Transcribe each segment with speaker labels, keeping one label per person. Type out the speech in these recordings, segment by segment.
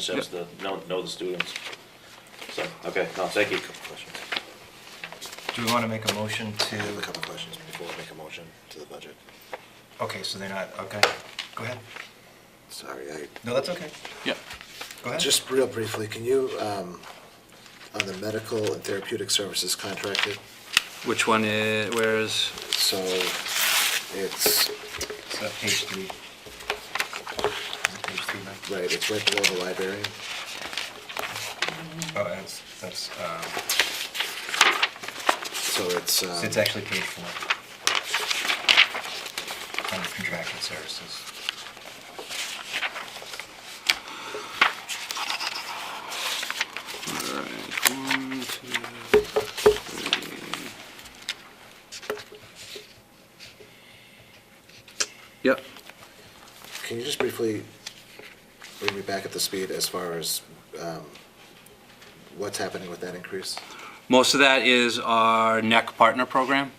Speaker 1: Since the, know, know the students. So, okay, no, thank you.
Speaker 2: Do we want to make a motion
Speaker 3: I have a
Speaker 2: to,
Speaker 3: couple questions before I make a motion to the budget.
Speaker 2: okay, so they're not, okay, go ahead.
Speaker 3: Sorry, I,
Speaker 2: No, that's okay.
Speaker 4: Yeah,
Speaker 2: Go ahead.
Speaker 3: just real briefly, can you, um, on the medical and therapeutic services contracted,
Speaker 4: which one is, where is,
Speaker 3: so it's,
Speaker 2: So page three. Is it Page three, Mike?
Speaker 3: right, it's right below the library.
Speaker 2: Oh, that's, that's, um,
Speaker 3: So it's,
Speaker 2: so
Speaker 3: um,
Speaker 2: it's actually page four. Under contracted services.
Speaker 4: all right, one, two, three. Yep,
Speaker 3: can you just briefly bring me back at the speed as far as, um, what's happening with that increase?
Speaker 4: most of that is our NEC partner program,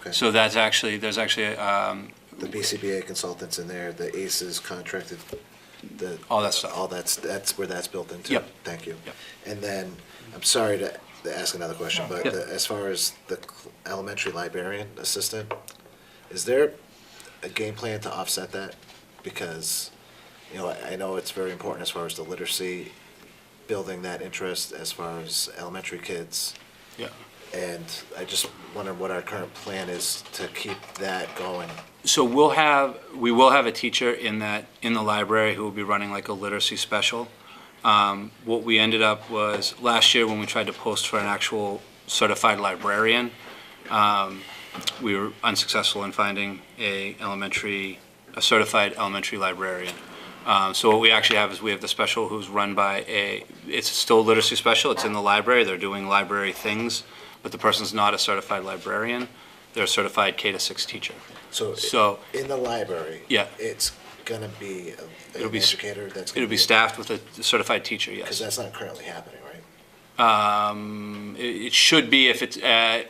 Speaker 3: Okay.
Speaker 4: so that's actually, there's actually, um,
Speaker 3: The BCBA consultants in there, the ACEs contracted, the.
Speaker 4: All that stuff.
Speaker 3: All that's, that's where that's built into.
Speaker 4: Yep.
Speaker 3: Thank you.
Speaker 4: Yep.
Speaker 3: And then, I'm sorry to to ask another question, but
Speaker 4: Yep.
Speaker 3: the- as far as the cl- elementary librarian assistant, is there a game plan to offset that? Because, you know, I I know it's very important as far as the literacy, building that interest as far as elementary kids.
Speaker 4: yeah.
Speaker 3: And I just wonder what our current plan is to keep that going.
Speaker 4: So we'll have, we will have a teacher in that, in the library who will be running like a literacy special. Um, What we ended up was, last year when we tried to post for an actual certified librarian, um, we were unsuccessful in finding a elementary, a certified elementary librarian. Um, So what we actually have is we have the special who's run by a, it's still a literacy special, it's in the library, they're doing library things, but the person's not a certified librarian, they're a certified K to six teacher.
Speaker 3: So.
Speaker 4: So
Speaker 3: In the library?
Speaker 4: Yeah.
Speaker 3: It's gonna be a-
Speaker 4: It'll
Speaker 3: an
Speaker 4: be s-
Speaker 3: educator that's gonna
Speaker 4: it'll
Speaker 3: be.
Speaker 4: be staffed with a certified teacher,
Speaker 3: Because
Speaker 4: yes.
Speaker 3: that's not currently happening, right?
Speaker 4: Um, It it should be if it's, uh,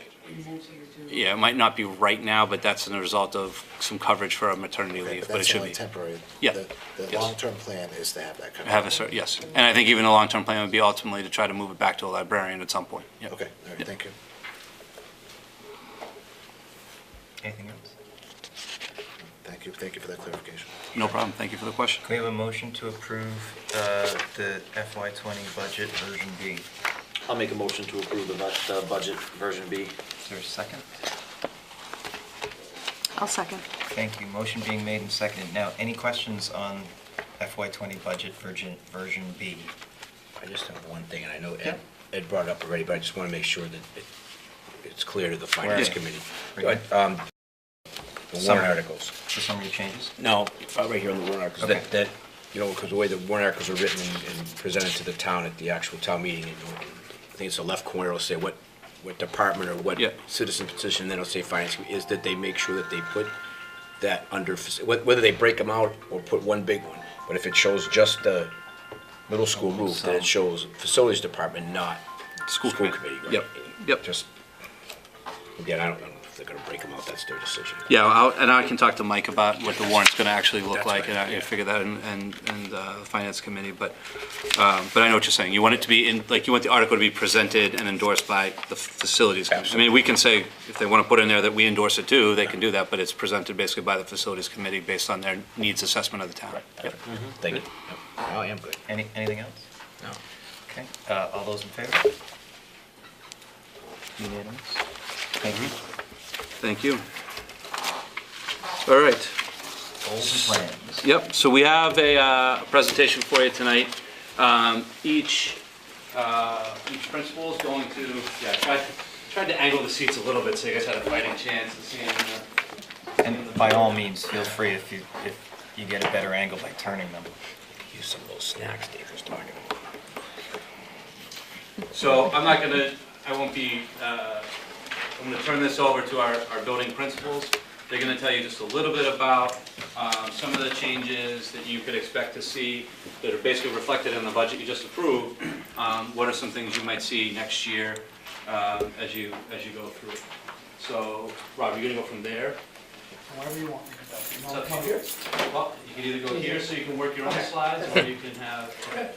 Speaker 4: yeah, it might not be right now, but that's a result of some coverage for a maternity
Speaker 3: Okay,
Speaker 4: leave, but it should be.
Speaker 3: That's only temporary.
Speaker 4: Yeah,
Speaker 3: The, the
Speaker 4: yes.
Speaker 3: long-term plan is to have that covered.
Speaker 4: Have a cert, yes. And I think even the long-term plan would be ultimately to try to move it back to a librarian at some point. Yeah.
Speaker 3: Okay, all right, thank you.
Speaker 2: Anything else?
Speaker 3: Thank you, thank you for that clarification.
Speaker 4: No problem, thank you for the question.
Speaker 2: Can we have a motion to approve, uh, the FY twenty budget version B?
Speaker 1: I'll make a motion to approve the bu- the budget version B.
Speaker 2: Is there a second?
Speaker 5: I'll second.
Speaker 2: Thank you. Motion being made and seconded. Now, any questions on FY twenty budget version, version B?
Speaker 6: I just have one thing, and I know
Speaker 2: Yeah.
Speaker 6: Ed, Ed brought it up already, but I just want to make sure that it, it's clear to the finance
Speaker 2: Yeah.
Speaker 6: committee.
Speaker 2: Right.
Speaker 6: But, um, the
Speaker 2: Summary.
Speaker 6: warrant articles.
Speaker 2: The summary changes?
Speaker 6: No, uh, right here on the warrant articles,
Speaker 2: Okay.
Speaker 6: that, that, you know, because the way the warrant articles are written and- and presented to the town at the actual town meeting, you know, I think it's the left corner will say what, what department or what
Speaker 4: Yeah.
Speaker 6: citizen petition, then it'll say finance, committee, is that they make sure that they put that under, faci- wh- whether they break them out or put one big one. But if it shows just the middle school roof, then it shows facilities department, not
Speaker 4: School
Speaker 6: school
Speaker 4: committee.
Speaker 6: committee. right?
Speaker 4: Yep, yep.
Speaker 6: Just, again, I don't know if they're gonna break them out, that's their decision.
Speaker 4: Yeah, I'll- and I can talk to Mike about what the warrant's going to actually look
Speaker 6: That's
Speaker 4: like,
Speaker 6: right,
Speaker 4: and I can
Speaker 6: yeah.
Speaker 4: figure that in, and, and uh, the Finance Committee, but, um, but I know what you're saying. You want it to be in, like, you want the article to be presented and endorsed by the Facilities Committee. I mean, we can say, if they want to put in there that we endorse it too, they can do that, but it's presented basically by the Facilities Committee based on their needs assessment of the town. Yep.
Speaker 6: Thank you. Yep. Oh, I am good.
Speaker 2: Any, anything else?
Speaker 6: No.
Speaker 2: Okay, uh, all those in favor? Unanimous? Thank you.
Speaker 4: Thank you. All right.
Speaker 2: Goals and plans.
Speaker 4: Yep, so we have a uh, presentation for you tonight. Um, Each, uh, each principal is going to, yeah, I tried- tried to angle the seats a little bit so you guys had a fighting chance of seeing. uh,
Speaker 2: And by all means, feel free if you, if you get a better angle by turning them.
Speaker 6: Use some of those snacks Dave was talking about.
Speaker 4: So I'm not gonna, I won't be, uh, I'm gonna turn this over to our, our building principals. They're gonna tell you just a little bit about um, some of the changes that you could expect to see that are basically reflected in the budget you just approved. Um, What are some things you might see next year um, as you, as you go through? it. So, Rob, you're gonna go from there?
Speaker 7: Whatever you want. You
Speaker 4: It's
Speaker 7: want
Speaker 4: up
Speaker 7: to
Speaker 4: to
Speaker 7: come
Speaker 4: you. Well, you can either go here so you can work your own slides, or you can have,